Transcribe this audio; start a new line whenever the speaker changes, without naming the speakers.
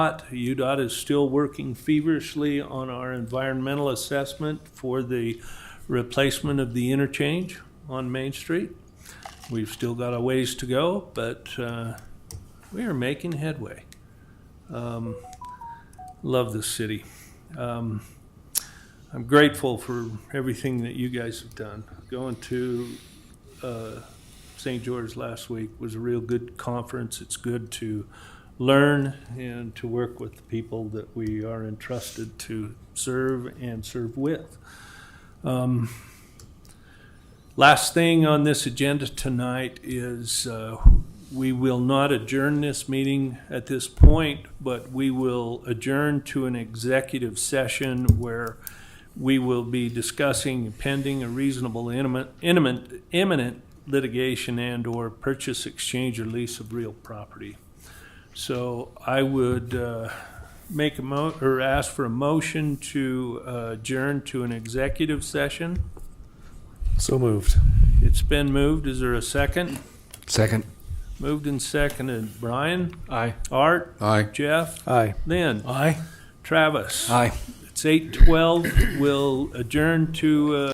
UDOT is still working feverishly on our environmental assessment for the replacement of the interchange on Main Street. We've still got a ways to go, but uh, we are making headway. Um, Love this city. Um, I'm grateful for everything that you guys have done. Going to uh, St. George last week was a real good conference. It's good to learn and to work with the people that we are entrusted to serve and serve with. Um, Last thing on this agenda tonight is uh, we will not adjourn this meeting at this point, but we will adjourn to an executive session where we will be discussing pending a reasonable intimate- imminent imminent litigation and/or purchase, exchange, or lease of real property. So I would uh, make a mo, or ask for a motion to uh, adjourn to an executive session.
So moved.
It's been moved. Is there a second?
Second.
Moved and seconded. Brian,
Aye.
Art,
Aye.
Jeff,
Aye.
Lynn,
Aye.
Travis.
Aye.
It's eight twelve. We'll adjourn to, uh,